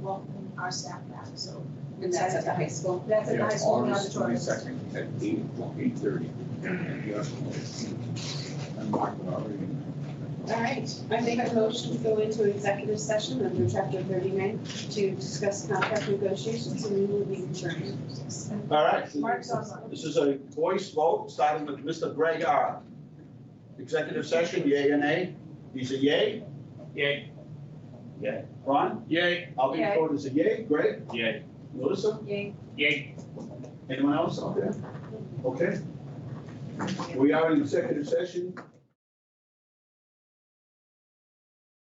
welcome our staff back, so. And that's at the high school. That's at the Yeah, high school in the August auditorium. twenty-second at eight o'clock, eight thirty. I'm marking already. All right, I make a motion to go into executive session under chapter thirty-nine to discuss contract negotiations and we will be adjourned. All right. Mark Sosa. This is a voice vote, starting with Mr. Greg R. Executive session, yay or nay? He's a yay? Yay. Yay. Ron? Yay. I'll be Yay. voted as a yay. Greg? Yay. Melissa? Yay. Yay. Anyone else out there? Okay. We are in executive session